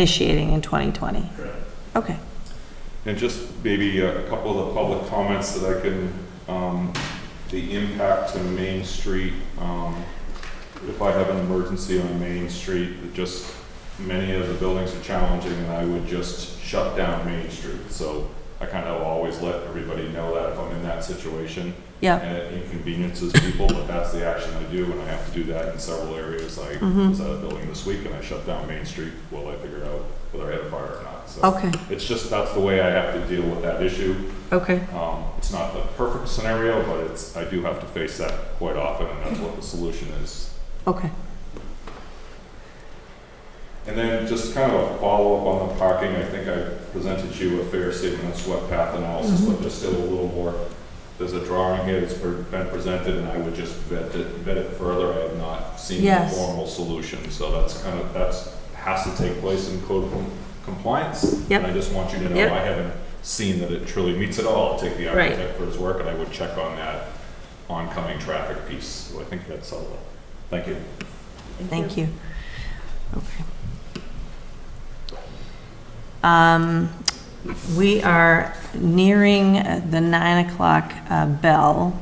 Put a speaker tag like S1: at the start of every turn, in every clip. S1: initiating in 2020?
S2: Correct.
S1: Okay,
S3: And just maybe a a couple of the public comments that I can, um, the impact to Main Street, um, if I have an emergency on Main Street, that just, many of the buildings are challenging and I would just shut down Main Street. So I kind of always let everybody know that if I'm in that situation.
S1: yeah.
S3: And it inconveniences people, but that's the action I do and I have to do that in several areas. I
S1: mm-hmm,
S3: was at a building this week and I shut down Main Street while I figured out whether I had a fire or not, so.
S1: Okay,
S3: It's just, that's the way I have to deal with that issue.
S1: okay.
S3: Um, it's not the perfect scenario, but it's, I do have to face that quite often, and that's what the solution is.
S1: Okay.
S3: And then just kind of a follow-up on the parking, I think I presented you a fair statement of sweat path analysis,
S1: Mm-hmm.
S3: but there's still a little more. There's a drawing here that's pre- been presented, and I would just vet it, vet it further, I have not seen a
S1: Yes.
S3: formal solution, so that's kind of, that's, has to take place in code com- compliance.
S1: Yep.
S3: And I just want you to know,
S1: Yep.
S3: I haven't seen that it truly meets it all, I'll take the
S1: Right.
S3: architect for his work, and I would check on that oncoming traffic piece, so I think that's all, thank you.
S1: Thank you. Okay. Um, We are nearing uh, the nine o'clock uh, bell,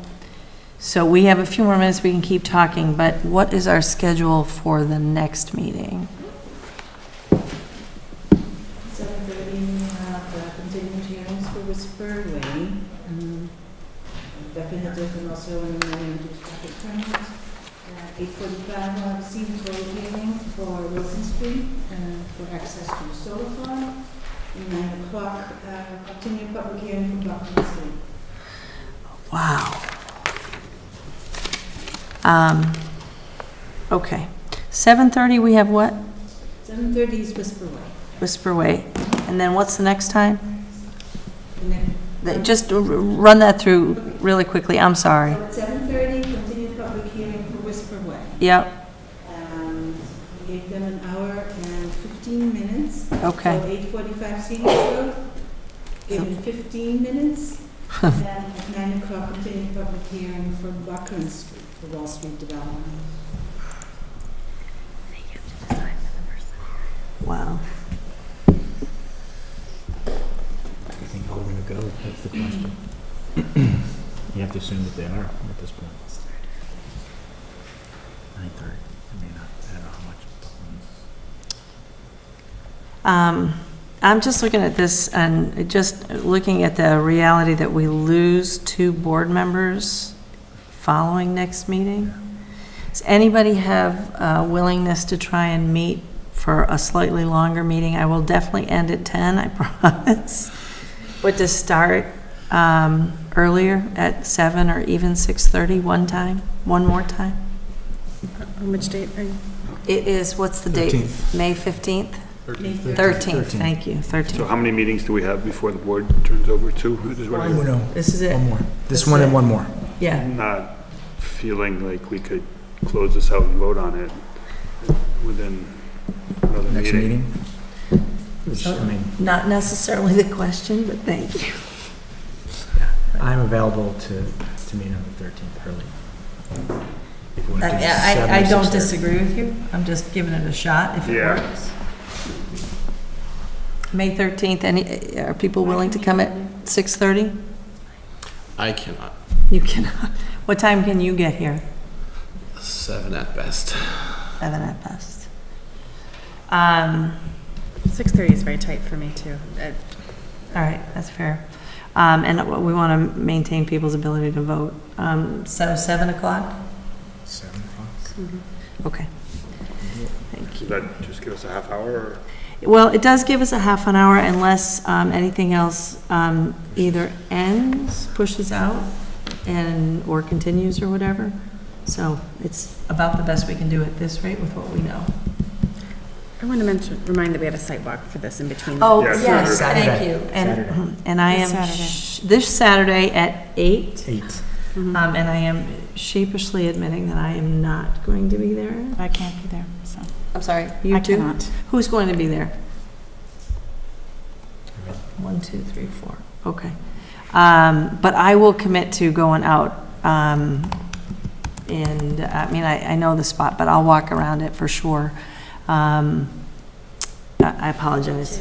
S1: so we have a few more minutes we can keep talking, but what is our schedule for the next meeting?
S4: Seven thirty, we have uh, the continued hearings for Whisper Way.
S1: Mm-hmm.
S4: um, Definitive and also an amendment to traffic permit. Eight forty-five, we'll have a scenic road hearing for Wilson Street uh, for access to the solar farm. And Nine o'clock, uh, continued public hearing for Buckland Street.
S1: Wow. Um, Okay. 7:30, we have what?
S4: Seven thirty is Whisper Way.
S1: Whisper Way. And then what's the next time?
S4: And then
S1: Th- Just r- run that through really quickly, I'm sorry.
S4: So at seven thirty, continued public hearing for Whisper Way.
S1: Yep,
S4: Um, we gave them an hour and fifteen minutes.
S1: okay.
S4: So eight forty-five Stevens Road, given fifteen minutes. And Then at nine o'clock, continue public hearing for Buckland Street, the Wall Street development.
S1: Wow.
S5: You think how we're gonna go? That's the question. You have to assume that they are at this point. Nine thirty, I mean, I I don't know how much.
S1: Um, I'm just looking at this and just looking at the reality that we lose two board members following next meeting. Does anybody have uh, willingness to try and meet for a slightly longer meeting? I will definitely end at 10, I promise. But to start um, earlier at 7 or even 6:30 one time, one more time?
S6: On which date are you?
S1: It is, what's the date? May 15th?
S4: May
S1: 13th,
S5: 13th.
S1: thank you, 13th.
S2: So how many meetings do we have before the board turns over to? Is what I'm
S5: no.
S1: This is it,
S5: One more.
S1: That's
S5: This one and
S1: it.
S5: one more.
S1: yeah.
S2: not feeling like we could close this out and vote on it within another
S5: Next
S2: meeting.
S5: meeting. Which, I mean,
S1: Not necessarily the question, but thank you.
S5: I'm available to, to meet on the thirteenth early. If you wanna do
S1: I, I- I
S5: seven or
S1: don't
S5: 6:30.
S1: disagree with you. I'm just giving it a shot if it
S2: Yeah.
S1: works. May 13th, any, are people willing to come at 6:30?
S7: I cannot.
S1: You cannot. What time can you get here?
S7: Seven at best.
S1: Seven at best. Um,
S6: 6:30 is very tight for me, too. Uh,
S1: All right, that's fair. Um, And we want to maintain people's ability to vote. Um, So 7 o'clock?
S5: Seven o'clock.
S6: Mm-hmm.
S1: Okay. Thank you.
S2: Does that just give us a half hour or?
S1: Well, it does give us a half an hour unless um, anything else um, either ends, pushes out, and, or continues or whatever. So it's about the best we can do at this rate with what we know.
S6: I want to mention, remind that we have a site walk for this in between.
S1: Oh,
S2: Yeah,
S1: yes,
S5: Saturday.
S1: thank you. And,
S5: Saturday.
S1: and I
S6: This
S1: am,
S6: Saturday.
S1: sh- this Saturday at eight,
S5: Eight.
S6: Mm-hmm.
S1: um, and I am sheepishly admitting that I am not going to be there.
S6: I can't be there, so.
S1: I'm sorry, you too? Who's going to be there? One, two, three, four. Okay. Um, But I will commit to going out, um, and, I mean, I, I know the spot, but I'll walk around it for sure. Um, uh, I I apologize.